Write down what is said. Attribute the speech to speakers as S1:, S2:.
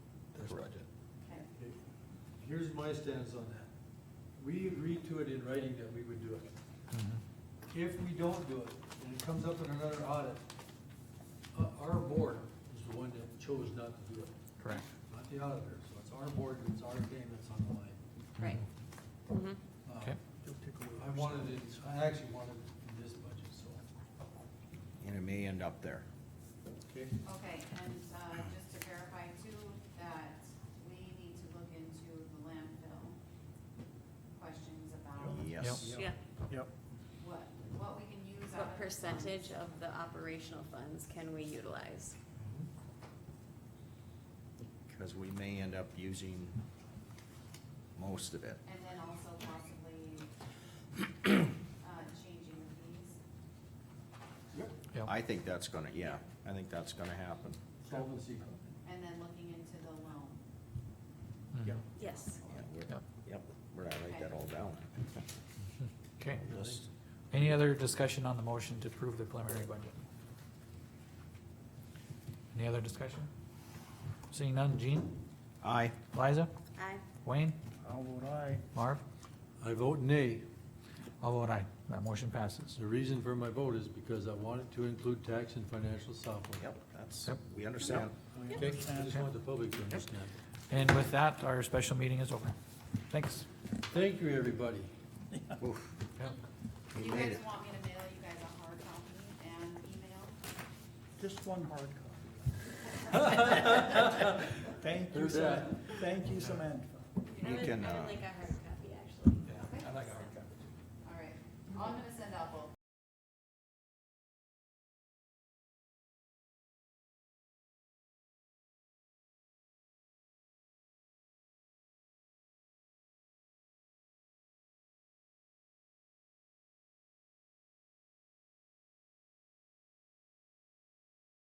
S1: here's my stance on that. We agreed to it in writing that we would do it. If we don't do it, and it comes up in another audit, uh, our board is the one that chose not to do it,
S2: Correct.
S1: not the auditor, so it's our board, it's our game that's on the line.
S3: Right. Mhm.
S1: Uh,
S2: Okay.
S1: I wanted it, I actually wanted it in this budget, so.
S4: And it may end up there.
S1: Okay.
S5: Okay, and, uh, just to verify too, that we need to look into the landfill questions about
S4: Yes.
S3: Yeah,
S2: Yep.
S5: what, what we can use out of.
S3: what
S5: the
S3: percentage
S5: funds.
S3: of the operational funds can we utilize?
S4: Cause we may end up using most of it.
S5: And then also possibly, uh, changing the fees.
S2: Yep.
S4: I think that's gonna, yeah, I think that's gonna happen.
S1: Solvency.
S5: And then looking into the loan.
S2: Mm-hmm.
S1: Yeah.
S3: Yes.
S4: Yeah, we're-
S2: Yep.
S4: Yep, we're gonna write that all down.
S2: Okay.
S4: Just-
S2: Any other discussion on the motion to approve the preliminary budget? Any other discussion? Seeing none, Jean,
S4: Aye.
S2: Liza,
S3: Aye.
S2: Wayne,
S6: I'll vote aye.
S2: Marv,
S1: I vote nay.
S2: all vote aye. That motion passes.
S1: The reason for my vote is because I wanted to include tax and financial software.
S4: Yep, that's,
S2: Yep.
S4: we understand.
S1: Okay, I just want the public to understand.
S2: And with that, our special meeting is over. Thanks.
S1: Thank you, everybody.
S4: Oof,
S2: Yep.
S4: We
S5: Do you
S4: made
S5: guys
S4: it.
S5: want me to mail you guys a hard copy and email?
S6: Just one hard copy. Thank you,
S1: Heard that.
S6: Sam- thank you, Samantha.
S4: You can, uh,
S3: like a hard copy, actually.
S5: All right, all I'm gonna say